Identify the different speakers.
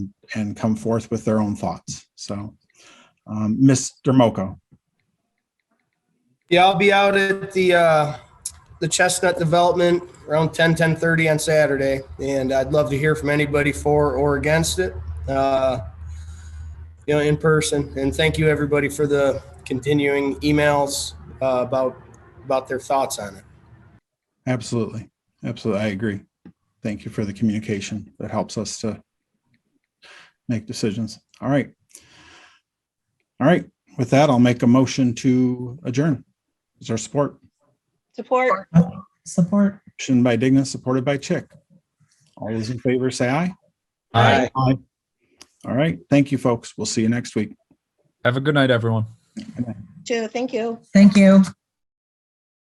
Speaker 1: and come forth with their own thoughts. So, um, Mr. Moko,
Speaker 2: Yeah, I'll be out at the uh, the Chestnut Development around 10, 10.30 on Saturday, and I'd love to hear from anybody for or against it, uh, you know, in person. And thank you, everybody, for the continuing emails uh, about about their thoughts on it.
Speaker 1: absolutely, absolutely, I agree. Thank you for the communication that helps us to make decisions. All right. All right, with that, I'll make a motion to adjourn. Is there support?
Speaker 3: Support.
Speaker 4: Support.
Speaker 1: Motion by Digna, supported by Chick. All those in favor, say aye.
Speaker 5: Aye.
Speaker 1: Aye. All right, thank you, folks. We'll see you next week.
Speaker 5: Have a good night, everyone.
Speaker 3: Too. Thank you.
Speaker 4: Thank you.